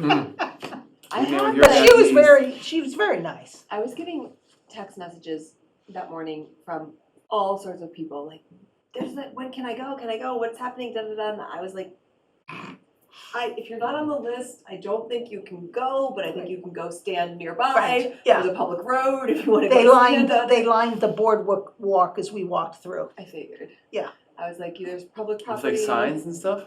Hmm. I You know, have you're been- at She was ease. very, she was very nice. I was getting text messages that morning from all sorts of people, like, "There's that. When can I go? Can I go? What's happening?" Da da da. And I was like, "I if you're not on the list, I don't think you can go, but I think you can go stand nearby. Right, yeah. There's a public road if you want to They go lined, stand up." they lined the boardwalk walk as we walked through. I figured. Yeah. I was like, "There's public It's property." like signs and stuff?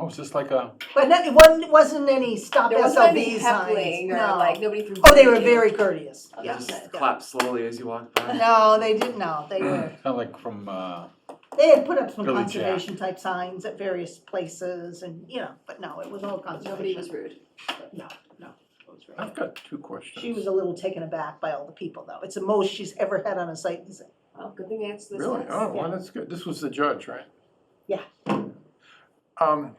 Oh, it's just like a, But no- it wasn't, wasn't any stop There wasn't SLV any heckling signs, or no. like nobody threw. Oh, they were food at you. very courteous, Okay. yes. Just yeah. clap slowly as you walk by. No, they didn't, no, they were, kind of like from, uh, they had put up some Really, Jack. conservation type signs at various places and, you know, but no, it was all Nobody conservation. was rude. No, no. it was very- I've got two questions. She was a little taken aback by all the people though. It's the most she's ever had on a site visit. Well, good thing I answered this. Really? text. Oh, well, yeah. that's good. This was the judge, right? Yeah. Um,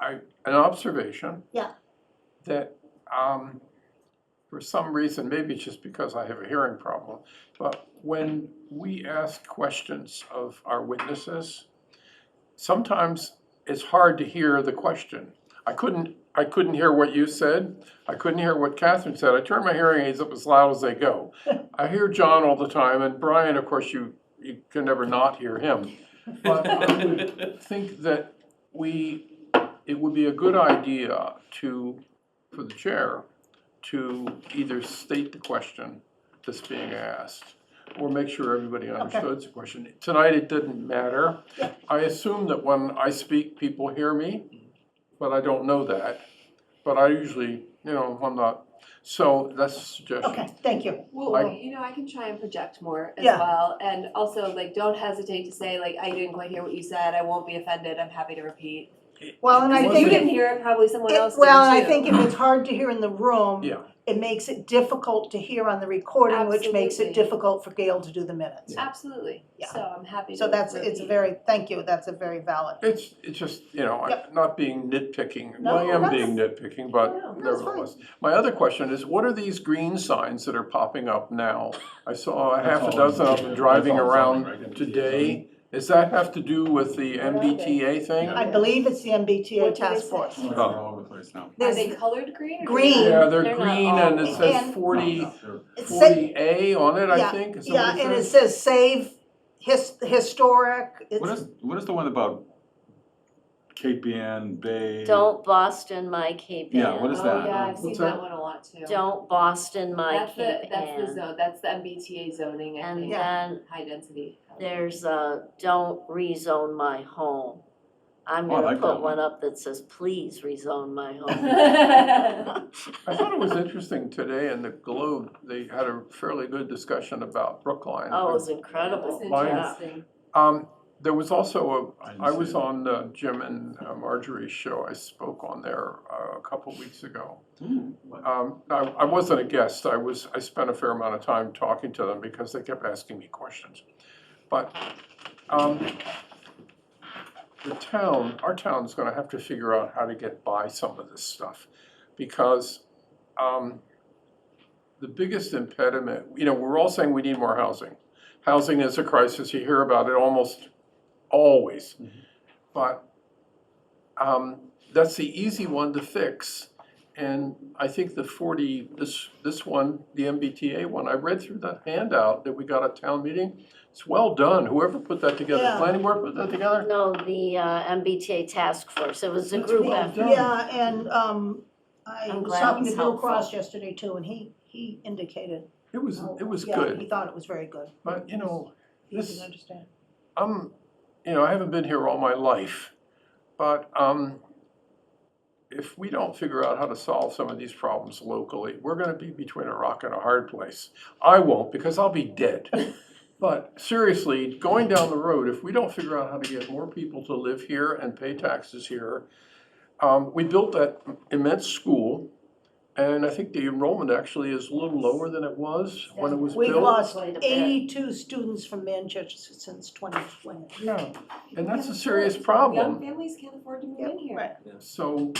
I, an observation. Yeah. That, um, for some reason, maybe it's just because I have a hearing problem, but when we ask questions of our witnesses, sometimes it's hard to hear the question. I couldn't, I couldn't hear what you said. I couldn't hear what Catherine said. I turned my hearing aids up as loud as they go. I hear John all the time, and Brian, of course, you, you can never not hear him. But I would think that we, it would be a good idea to, for the chair, to either state the question that's being asked, or make sure everybody understood the question. Tonight, it didn't matter. Yeah. I assume that when I speak, people hear me, but I don't know that. But I usually, you know, I'm not, so that's a suggestion. Okay, thank you. Well, I- you know, I can try and project more as Yeah. well, and also like, don't hesitate to say like, I didn't quite hear what you said, I won't be offended, I'm happy to repeat. Well, and I Well, If you think. didn't hear it, probably someone It- else did too. Well, and I think if it's hard to hear in the room. Yeah. It makes it difficult to hear on the recording, which makes it Absolutely. difficult for Gail to do the minutes. Absolutely, Yeah. so I'm happy to repeat. So that's, it's a very, thank you, that's a very valid. It's, it's just, you know, I'm not being nitpicking, No, well, I am that's- being nitpicking, No, but no, it's fine. nevertheless. My other question is, what are these green signs that are popping up now? I saw a That's half a all dozen of zoning, them that's driving all zoning, around right? today. Does that have to do with the are they? MBTA thing? I believe it's the MBTA What do they task say? force. They're all over the place now. Are There's, they colored green or? do Green. they- Yeah, they're They're not Oh, green all and it And- says No, forty, no, they're- it say, forty A on it, I think, is yeah, that and what it it says? says save his, historic, What it's, is, what is the one about Cape Ann Bay? Don't Boston my Cape Ann. Yeah, what is Oh, that? yeah, I've seen What's that that? one a lot too. Don't Boston my That's the, Cape that's the Ann. zone, that's the MBTA zoning, I And think, then high density. there's a don't rezone my home. I'm Oh, I gonna like that put one. one up that says, please rezone my home. That's I thought it was interesting today in the Globe, they had a fairly good discussion about Brookline. Oh, it was incredible. Yeah. interesting. Um, there was also I a, didn't I see was that. on uh, Jim and uh, Marjorie's show, I spoke on there uh, a couple weeks ago. Ooh, what- Um, I, I wasn't a guest, I was, I spent a fair amount of time talking to them because they kept asking me questions. But, um, the town, our town's gonna have to figure out how to get by some of this stuff. Because, um, the biggest impediment, you know, we're all saying we need more housing. Housing is a crisis, you hear about it almost always. Mhm. But, um, that's the easy one to fix. And I think the forty, this, this one, the MBTA one, I read through that handout that we got at town meeting. It's well done, whoever put that together, Yeah. planning board put that together? No, the uh, MBTA task force, it was a That's group well effort. done. yeah, and, um, I I'm was glad it talking to was Bill helpful. Cross yesterday too, and he, he indicated. It was, how- it was Yeah, he good, thought it was very good. but you know, He This- didn't understand. I'm, you know, I haven't been here all my life. But, um, if we don't figure out how to solve some of these problems locally, we're gonna be between a rock and a hard place. I won't, because I'll be dead. But seriously, going down the road, if we don't figure out how to get more people to live here and pay taxes here, um, we built that immense school, and I think the enrollment actually is a little lower than it was when it was built. We've lost Quite a bit. eighty-two students from Manchester since twenty twenty. Yeah, and that's a serious problem. Young families can't afford to move in here. Right. So,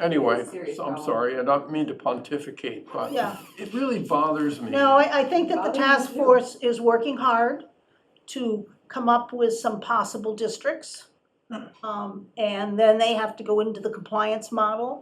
anyway, It's a serious so I'm problem. sorry, I don't mean to pontificate, but Yeah. it really bothers me. No, I, I think that the Probably task do. force is working hard to come up with some possible districts Um, and then they have to go into the compliance model.